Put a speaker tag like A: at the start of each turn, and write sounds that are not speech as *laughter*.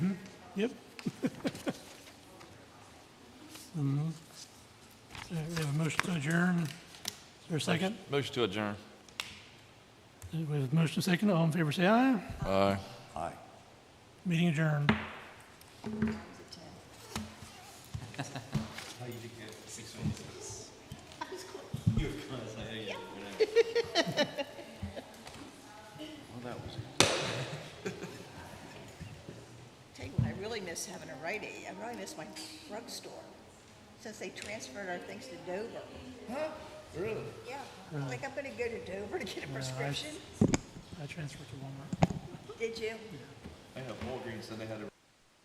A: Yep. Mhm. So We have a motion to adjourn. Is there a second?
B: Motion to adjourn.
A: We have a motion second. All in favor, say aye.
B: Aye.
A: Meeting adjourned.
C: *laughs* Tell you what, I really miss having a Rite Aid. I really miss my drugstore since they transferred our things to Dover. Huh? Really? Yeah. Like, I'm gonna go to Dover to get a prescription.
A: I transferred to Walmart.
C: Did you?
D: I know Walgreens, then they had a